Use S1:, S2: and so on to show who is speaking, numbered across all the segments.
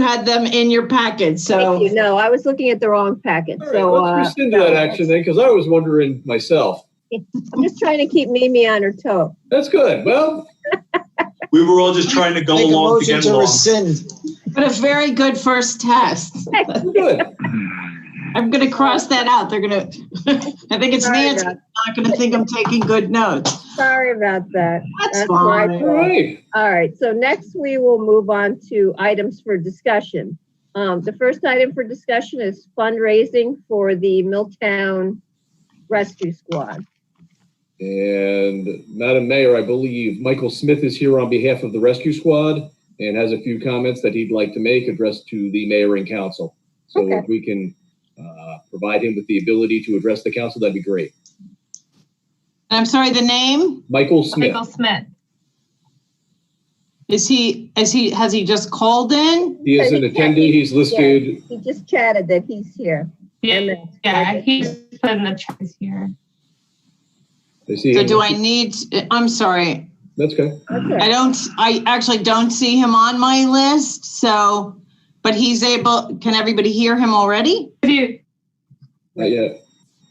S1: had them in your packet,
S2: Thank
S1: so.
S2: you. No, I was looking at the wrong packet,
S3: All right,
S2: so uh,
S3: let's rescind that action then, because I was wondering myself.
S2: I'm just trying to keep Mimi on her toe.
S3: That's good. Well,
S4: We were all just trying to go
S5: Make a
S4: along to
S5: motion
S4: get
S5: to
S4: along.
S5: rescind.
S1: But a very good first test.
S3: we're good.
S1: I'm gonna cross that out. They're gonna, I think it's
S2: Sorry
S1: Nancy,
S2: about-
S1: not gonna think I'm taking good notes.
S2: Sorry about that.
S1: That's
S2: That's my
S1: fine.
S3: All right.
S2: All right, so next we will move on to items for discussion. Um, the first item for discussion is fundraising for the Milltown Rescue Squad.
S3: And Madam Mayor, I believe Michael Smith is here on behalf of the rescue squad and has a few comments that he'd like to make addressed to the mayor and council. So
S2: Okay.
S3: if we can uh, provide him with the ability to address the council, that'd be great.
S1: I'm sorry, the name?
S3: Michael Smith.
S6: Michael Smith.
S1: Is he, is he, has he just called in?
S3: He is an attendee. He's listed.
S2: He just chatted that he's here.
S6: Yeah,
S2: And that's-
S6: yeah, he's put in the chat here.
S3: I see
S1: So
S3: him.
S1: do I need, I'm sorry,
S3: That's okay.
S1: I
S2: Okay,
S1: don't, I actually don't see him on my list, so, but he's able, can everybody hear him already?
S6: If you,
S3: Not yet.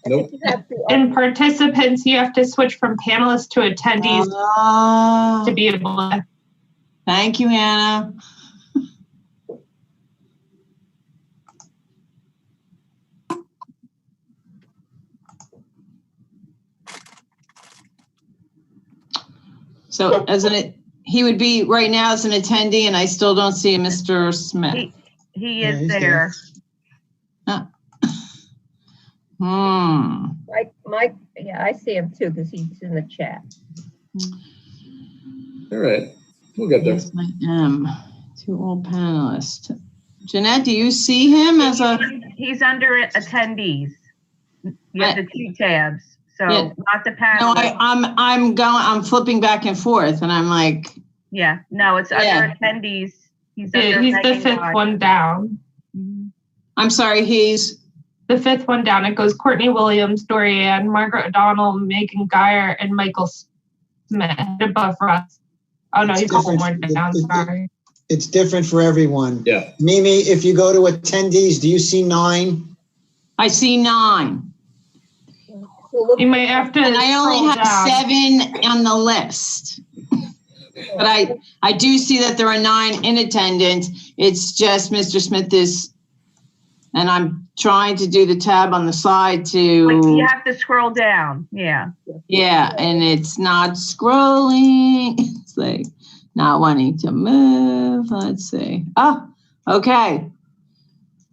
S2: I think you have to-
S6: in participants, you have to switch from panelists to attendees
S1: Ah,
S5: Um,
S6: to be able to.
S1: Thank you, Hannah. So as an, he would be right now as an attendee and I still don't see Mr. Smith.
S7: He
S5: Yeah,
S7: is
S5: he's there.
S7: there.
S1: Hmm.
S2: Mike, Mike, yeah, I see him too, because he's in the chat.
S3: All right. We'll get there.
S1: Yes, I am. Two old panelists. Jeanette, do you see him as a,
S7: He's under attendees. You have the two tabs, so
S1: Yeah.
S7: not the
S1: no, I,
S7: panel.
S1: I'm, I'm going, I'm flipping back and forth and I'm like,
S7: Yeah, no, it's
S1: Yeah.
S7: under attendees. He's under.
S6: He's the
S7: Megan
S6: fifth
S7: Lodge.
S6: one down.
S1: Mm-hmm. I'm sorry, he's,
S6: The fifth one down. It goes Courtney Williams, Dorianne, Margaret O'Donnell, Megan Geyer, and Michael Smith above Russ. Oh no,
S5: It's
S6: he's a couple more
S5: different.
S6: down. Sorry.
S5: It's different for everyone.
S3: Yeah.
S5: Mimi, if you go to attendees, do you see nine?
S1: I see nine.
S2: So look-
S6: You might have to.
S1: And I only
S6: scroll
S1: have
S6: down.
S1: seven on the list. But I, I do see that there are nine in attendance. It's just Mr. Smith is, and I'm trying to do the tab on the side
S7: Like,
S1: to.
S7: You have to scroll down, yeah.
S1: Yeah, and it's not scrolling. It's like not wanting to move. Let's see. Oh, okay.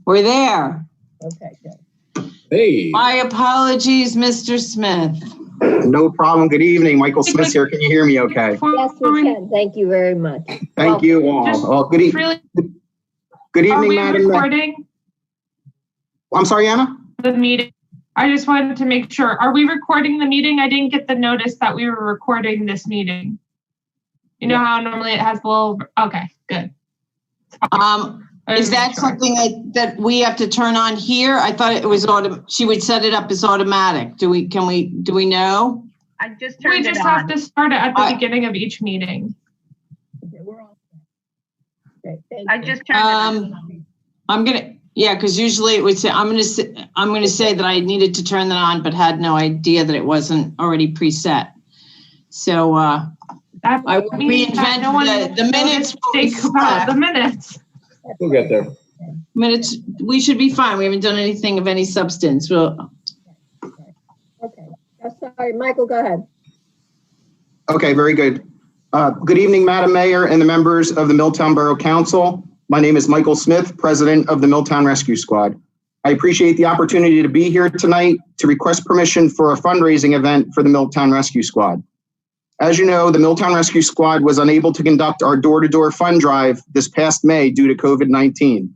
S1: We're there.
S2: Okay, good.
S3: Hey.
S1: My apologies, Mr. Smith.
S8: No problem. Good evening. Michael Smith here. Can you hear me okay?
S2: Yes, we can. Thank you very much.
S8: Thank you all. Well, good, e-
S6: Really, are
S8: good evening,
S6: we
S8: Madam. Ma-
S6: recording
S8: I'm sorry, Anna?
S6: the meeting? I just wanted to make sure. Are we recording the meeting? I didn't get the notice that we were recording this meeting. You know how normally it has the little, okay, good.
S1: Um,
S6: I
S1: is
S6: just
S1: that
S6: made sure.
S1: something that, that we have to turn on here? I thought it was auto, she would set it up as automatic. Do we, can we, do we know?
S7: I just
S6: We
S7: turned it
S6: just have
S7: on.
S6: to start it at the
S1: I-
S6: beginning of each meeting.
S2: Okay, We're all. Great, thank
S7: I
S2: you.
S7: just turned it on.
S1: Um, I'm gonna, yeah, because usually it would say, I'm gonna, say- I'm gonna say that I needed to turn that on, but had no idea that it wasn't already preset. So, uh,
S6: That
S1: I will
S6: means that no one
S1: reinvent the, the minutes. will
S6: Think about the
S1: reflect-
S6: minutes.
S3: We'll get there.
S1: Minutes, we should be fine. We haven't done anything of any substance. Well,
S2: Okay, I'm sorry, Michael, go ahead.
S8: Okay, very good. Uh, Good evening, Madam Mayor and the members of the Milltown Borough Council. My name is Michael Smith, President of the Milltown Rescue Squad. I appreciate the opportunity to be here tonight to request permission for a fundraising event for the Milltown Rescue Squad. As you know, the Milltown Rescue Squad was unable to conduct our door-to-door fund drive this past May due to COVID-19.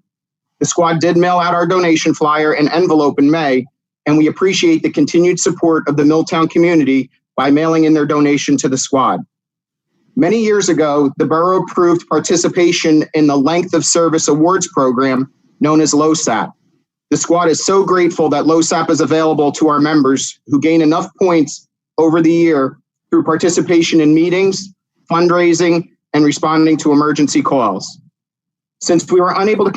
S8: The squad did mail out our donation flyer and envelope in May, and we appreciate the continued support of the Milltown community by mailing in their donation to the squad. Many years ago, the borough approved participation in the Length of Service Awards program known as LOSAP. The squad is so grateful that LOSAP is available to our members who gain enough points over the year through participation in meetings, fundraising, and responding to emergency calls. Since we were unable to